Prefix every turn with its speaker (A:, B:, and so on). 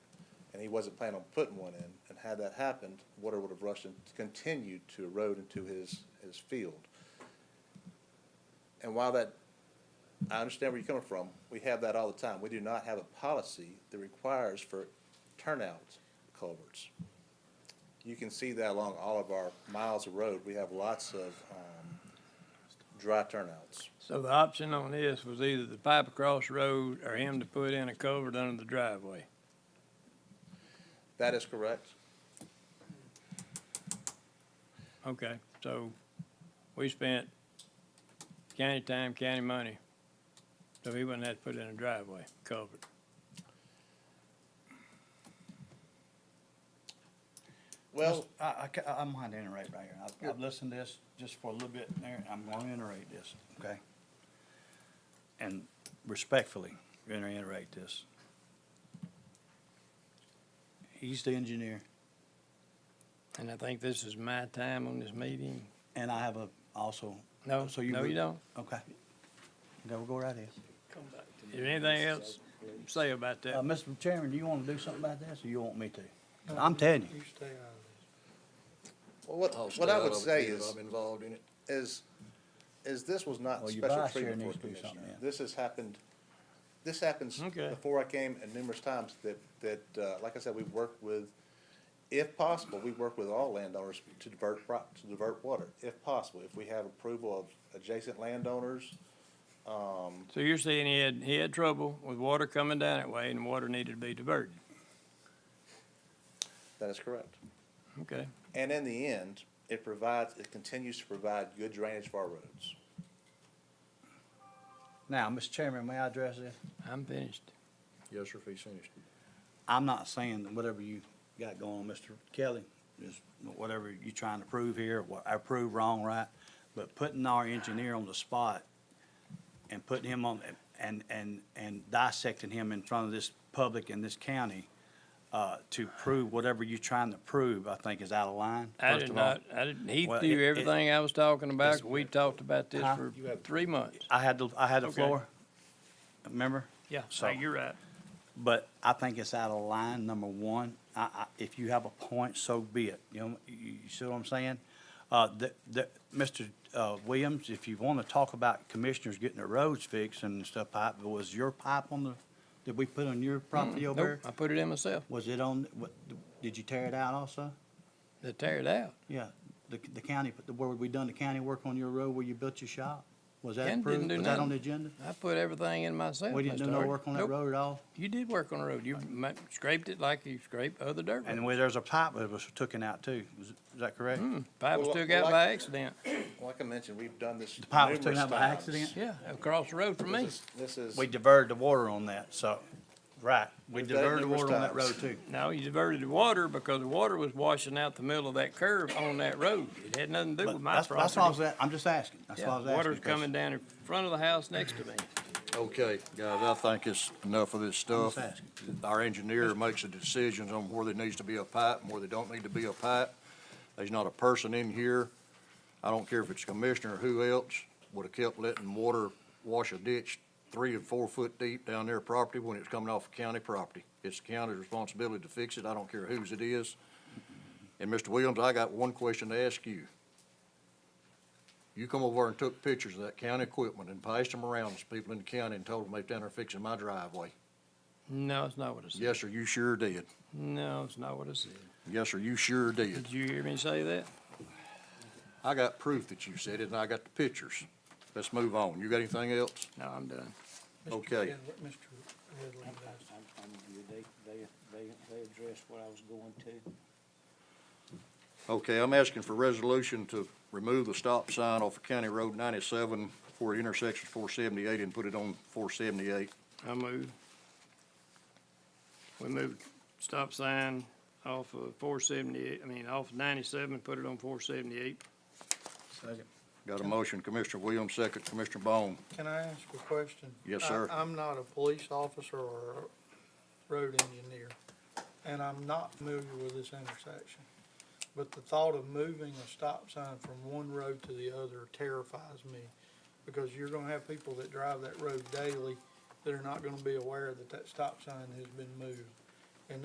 A: and he wasn't planning on putting one in. And had that happened, water would have rushed and continued to erode into his, his field. And while that, I understand where you're coming from, we have that all the time. We do not have a policy that requires for turnout culverts. You can see that along all of our miles of road, we have lots of, um, dry turnouts.
B: So the option on this was either the pipe across the road or him to put in a culvert under the driveway.
A: That is correct.
B: Okay, so we spent county time, county money, so he wouldn't have to put in a driveway culvert.
A: Well,
C: I, I, am going to iterate right here. I've, I've listened to this just for a little bit there, and I'm going to iterate this, okay? And respectfully, going to iterate this. He's the engineer,
B: And I think this is my time on this meeting.
C: and I have a, also,
B: No,
C: So you
B: no, you
C: would-
B: don't.
C: okay. No, we'll go right here.
B: Is there anything else to say about
C: Uh,
B: that?
C: Mr. Chairman, do you want to do something about this, or you want me to? I'm telling you,
A: well, what,
D: I'll stay
A: what I
D: out
A: would
D: of it,
A: say
D: even if
A: is,
D: Oh, I'm involved in it.
A: is, is this was not
C: Well, your
A: special
C: vice chair
A: treatment for a
C: needs to do
A: commissioner.
C: something, yeah.
A: This has happened, this happens
B: Okay.
A: before I came and numerous times that, that, uh, like I said, we've worked with, if possible, we work with all landowners to divert, pro- to divert water, if possible. If we have approval of adjacent landowners,
B: So you're saying he had, he had trouble with water coming down that way and water needed to be diverted?
A: that is correct.
B: Okay,
A: And in the end, it provides, it continues to provide good drainage for our roads.
C: now, Mr. Chairman, may I address this?
B: I'm finished.
D: Yes, sir, if he's finished.
C: I'm not saying that whatever you got going on, Mr. Kelly, is whatever you're trying to prove here, what I prove wrong, right? But putting our engineer on the spot and putting him on, and, and, and dissecting him in front of this public and this county, uh, to prove whatever you're trying to prove, I think is out of line.
B: I
C: first
B: did
C: of all.
B: not, I didn't, he
C: Well,
B: threw
C: it- it-
B: everything I was talking about,
C: It's-
B: we talked about this
C: Huh?
B: for three months.
C: I had the, I had the
B: Okay.
C: floor, remember?
B: Yeah,
C: So-
B: you're right.
C: But I think it's out of line, number one. I, I, if you have a point, so be it. You know, you, you see what I'm saying? Uh, the, the, Mr. Uh, Williams, if you want to talk about commissioners getting their roads fixed and stuff, pipe, was your pipe on the, did we put on your property over
B: Mm, Nope,
C: there?
B: I put it in myself,
C: Was it on, what, did you tear it out also?
B: to tear it out.
C: Yeah, the, the county, where we done the county work on your road where you built your shop? Was that
B: Ken didn't
C: approved?
B: do
C: Was that on
B: nothing.
C: the agenda?
B: I put everything in myself.
C: We didn't
B: Mr.
C: do no
B: Hardy.
C: work on that
B: Nope.
C: road at all?
B: You did work on the road. You ma- scraped it like you scrape other dirt.
C: And where there's a pipe that was taken out too, is, is that correct?
B: Mm, Pipe was
A: Well,
B: took
A: well,
B: out
A: I-
B: by accident.
A: Like I mentioned, we've done this
C: The pipe was
A: numerous
C: taken out by
A: times.
C: accident?
B: Yeah, across the road from me.
A: This is, this is-
C: We diverted the water on that, so, right, we
A: We've done it
C: diverted the
A: numerous
C: water on that
A: times.
C: road too.
B: No, you diverted the water because the water was washing out the middle of that curve on that road. It had nothing to do with
C: But
B: my
C: that's, that's what I was,
B: property.
C: a- I'm just asking, that's
B: Yeah,
C: what I was asking.
B: Water's
C: 'cause
B: coming down in front of the house next to me.
D: Okay, guys, I think it's enough of this
C: I'm
D: stuff.
C: just asking.
D: Our engineer makes the decisions on where there needs to be a pipe and where there don't need to be a pipe. There's not a person in here, I don't care if it's commissioner or who else, would have kept letting water wash a ditch three and four foot deep down their property when it's coming off of county property. It's the county's responsibility to fix it, I don't care whose it is. And Mr. Williams, I got one question to ask you. You come over and took pictures of that county equipment and passed them around to people in the county and told them they down there fixing my driveway.
B: No, it's not what I said.
D: Yes, sir, you sure did.
B: No, it's not what I said.
D: Yes, sir, you sure did.
B: Did you hear me say that?
D: I got proof that you said it, and I got the pictures. Let's move on. You got anything else?
B: No, I'm done.
D: Okay.
E: They, they, they, they addressed what I was going to.
D: Okay, I'm asking for resolution to remove the stop sign off of County Road ninety-seven for intersection four seventy-eight and put it on four seventy-eight.
B: I move. We moved stop sign off of four seventy-eight, I mean, off ninety-seven, put it on four seventy-eight.
D: Got a motion, Commissioner Williams, second, Commissioner Bone.
F: Can I ask a question?
D: Yes, sir.
F: I- I'm not a police officer or a road engineer, and I'm not familiar with this intersection. But the thought of moving a stop sign from one road to the other terrifies me, because you're gonna have people that drive that road daily that are not gonna be aware that that stop sign has been moved.